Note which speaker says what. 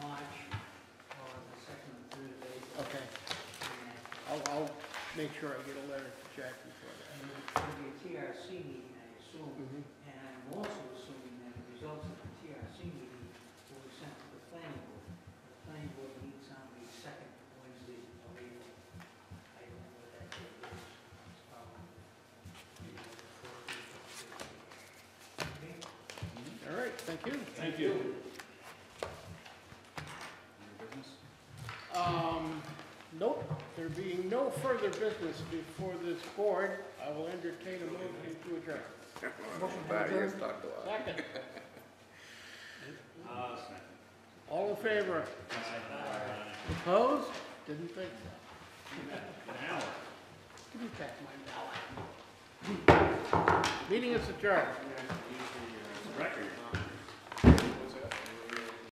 Speaker 1: make sure I get a letter to Jackie for
Speaker 2: And it's going to be a TRC meeting, I assume,
Speaker 1: that.
Speaker 2: and I'm also assuming that the results of the TRC meeting will be sent to the planning board. The planning board meets on the second Wednesday of April. I don't know what that date is. It's probably, you know, the fourth or the fifth. Okay?
Speaker 1: All right, thank you.
Speaker 3: Thank you. New business?
Speaker 1: Um, nope, there being no further business before this board, I will entertain a motion to adjourn. Second,
Speaker 3: Uh, second.
Speaker 1: all in favor?
Speaker 3: Aye.
Speaker 1: Opposed? Didn't think so.
Speaker 3: An hour.
Speaker 1: Give me back my ballot. Meeting is adjourned.
Speaker 3: Record.